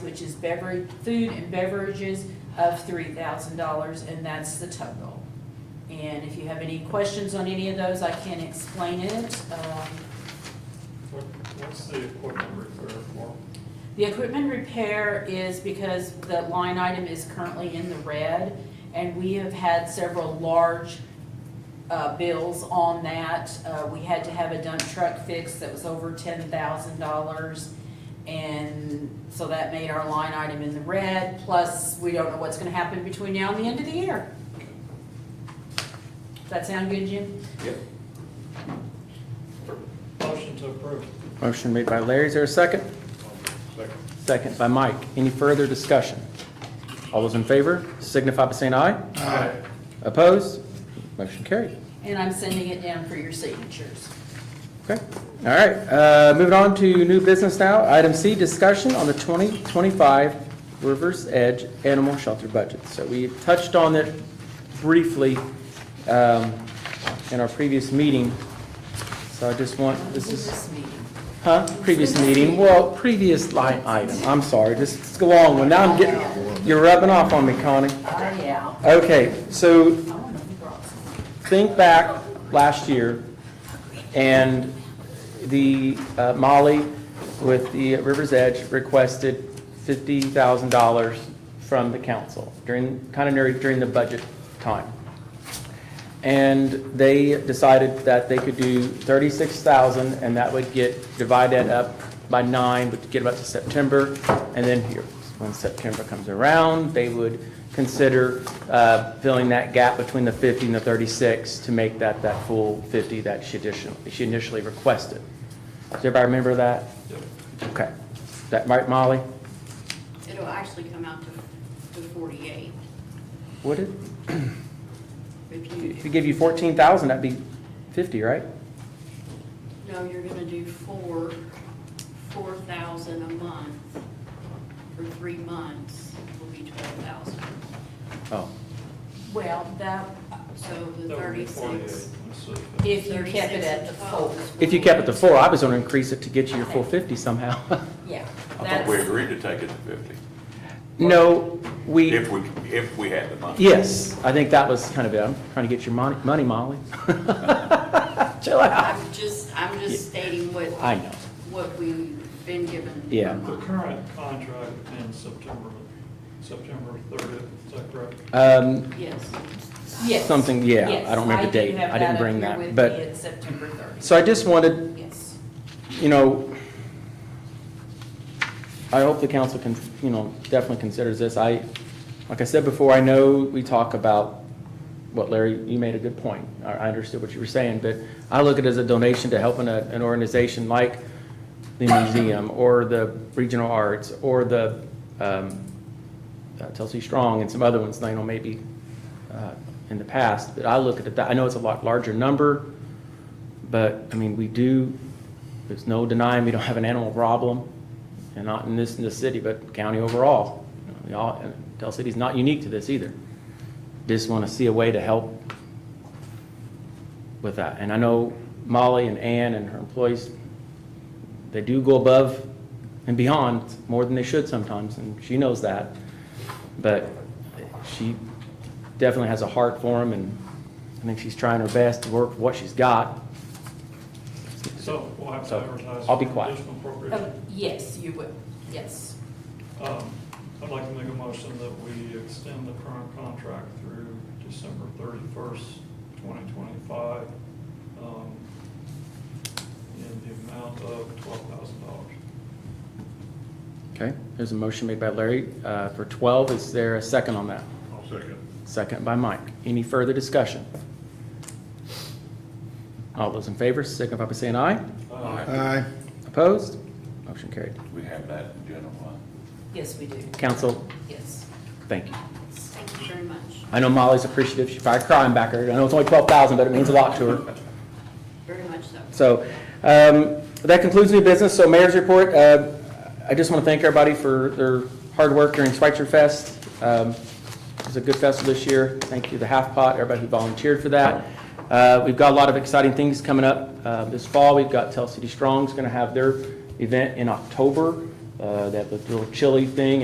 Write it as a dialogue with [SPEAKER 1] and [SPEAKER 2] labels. [SPEAKER 1] which is beverage, food and beverages of three thousand dollars, and that's the total. And if you have any questions on any of those, I can explain it. Um,
[SPEAKER 2] What, what's the equipment repair for?
[SPEAKER 1] The equipment repair is because the line item is currently in the red, and we have had several large uh, bills on that. Uh, We had to have a dump truck fixed that was over ten thousand dollars, and so that made our line item in the red, plus we don't know what's gonna happen between now and the end of the year. Does that sound good, Jim?
[SPEAKER 3] Yep.
[SPEAKER 2] Motion to approve.
[SPEAKER 4] Motion made by Larry, is there a second?
[SPEAKER 3] Second.
[SPEAKER 4] Second by Mike. Any further discussion? All those in favor signify by saying aye.
[SPEAKER 2] Aye.
[SPEAKER 4] Opposed? Motion carried.
[SPEAKER 1] And I'm sending it down for your signatures.
[SPEAKER 4] Okay, all right, uh, moving on to new business now. Item C, discussion on the 2025 Rivers Edge Animal Shelter Budget. So we touched on it briefly um, in our previous meeting, so I just want, this is.
[SPEAKER 1] This meeting.
[SPEAKER 4] Huh? Previous meeting, well, previous line item, I'm sorry, this is a long one, now I'm getting, you're rubbing off on me, Connie.
[SPEAKER 1] Ah, yeah.
[SPEAKER 4] Okay,
[SPEAKER 1] I
[SPEAKER 4] so
[SPEAKER 1] wanna know who brought some.
[SPEAKER 4] think back last year, and the uh, Molly with the River's Edge requested $50,000 from the council during, kind of near- during the budget time. And they decided that they could do 36,000, and that would get, divide that up by nine, would get up to September, and then here, when September comes around, they would consider uh, filling that gap between the 50 and the 36 to make that, that full 50 that she additionally, she initially requested. Does everybody remember that? Okay. Is that right, Molly?
[SPEAKER 5] It'll actually come out to, to forty-eight.
[SPEAKER 4] Would it?
[SPEAKER 5] If
[SPEAKER 4] If we
[SPEAKER 5] you,
[SPEAKER 4] give you 14,000, that'd be 50, right?
[SPEAKER 5] no, you're gonna do four, four thousand a month for three months will be twelve thousand.
[SPEAKER 4] Oh.
[SPEAKER 1] Well, that,
[SPEAKER 5] So the
[SPEAKER 2] That would be
[SPEAKER 5] thirty-six.
[SPEAKER 2] 48. Let's see.
[SPEAKER 1] If you kept it
[SPEAKER 5] 36
[SPEAKER 1] at the full,
[SPEAKER 5] is
[SPEAKER 4] If you kept it to
[SPEAKER 5] 48.
[SPEAKER 4] four, I was going to increase it to get you your full 50 somehow.
[SPEAKER 1] yeah.
[SPEAKER 3] I thought we
[SPEAKER 1] that's-
[SPEAKER 3] agreed to take it to fifty,
[SPEAKER 4] No, we,
[SPEAKER 3] if we, if we had the money.
[SPEAKER 4] yes, I think that was kind of it. I'm trying to get your money, money, Molly. Chill out.
[SPEAKER 5] I'm just, I'm just stating what,
[SPEAKER 4] I know.
[SPEAKER 5] what we've been given.
[SPEAKER 4] Yeah.
[SPEAKER 2] The current contract ends September, September thirtieth, is that correct?
[SPEAKER 4] Um,
[SPEAKER 5] Yes.
[SPEAKER 1] Yes.
[SPEAKER 4] Something, yeah, I
[SPEAKER 1] Yes,
[SPEAKER 4] don't remember the
[SPEAKER 1] do
[SPEAKER 4] date.
[SPEAKER 1] have
[SPEAKER 4] I didn't
[SPEAKER 1] up
[SPEAKER 4] bring
[SPEAKER 1] here
[SPEAKER 4] that,
[SPEAKER 1] with
[SPEAKER 4] but-
[SPEAKER 1] me. It's September 30th.
[SPEAKER 4] So I just wanted,
[SPEAKER 1] Yes.
[SPEAKER 4] you know, I hope the council can, you know, definitely considers this. I, like I said before, I know we talk about, what Larry, you made a good point. I I understood what you were saying, but I look at it as a donation to helping a- an organization like the museum or the regional arts or the um, uh, Telsey Strong and some other ones, I know maybe uh, in the past. But I look at it, that- I know it's a lot larger number. But, I mean, we do, there's no denying we don't have an animal problem, and not in this, in this city, but county overall. You know, We all, and Del City's not unique to this either. Just want to see a way to help with that. And I know Molly and Ann and her employees, they do go above and beyond more than they should sometimes, and she knows that. But she definitely has a heart for them, and I think she's trying her best to work with what she's got.
[SPEAKER 2] So we'll have to
[SPEAKER 4] So,
[SPEAKER 2] advertise.
[SPEAKER 4] I'll be
[SPEAKER 2] for
[SPEAKER 4] quiet.
[SPEAKER 2] Additional
[SPEAKER 1] Oh,
[SPEAKER 2] appropriation.
[SPEAKER 1] Yes, you will, yes.
[SPEAKER 2] Um, I'd like to make a motion that we extend the current contract through December thirty-first, twenty twenty-five, um, in the amount of twelve thousand dollars.
[SPEAKER 4] Okay, there's a motion made by Larry uh, for 12. Is there a second on that?
[SPEAKER 6] I'll second.
[SPEAKER 4] Second by Mike. Any further discussion? All those in favor, signify by saying aye.
[SPEAKER 6] Aye.
[SPEAKER 4] Opposed? Motion carried.
[SPEAKER 3] We have that in general fund.
[SPEAKER 1] Yes, we do,
[SPEAKER 4] Council,
[SPEAKER 1] yes.
[SPEAKER 4] thank you.
[SPEAKER 5] Thank you very much,
[SPEAKER 4] I know Molly's appreciative. She probably crying back there. I know it's only 12,000, but it means a lot to her.
[SPEAKER 5] very much so.
[SPEAKER 4] So um, that concludes new business. So mayor's report, uh, I just want to thank everybody for their hard work during Schweitzer Fest. Um, It was a good festival this year. Thank you, to Half Pot, everybody who volunteered for that. Uh, We've got a lot of exciting things coming up uh, this fall. We've got Tell City Strong's going to have their event in October, uh, that little chili thing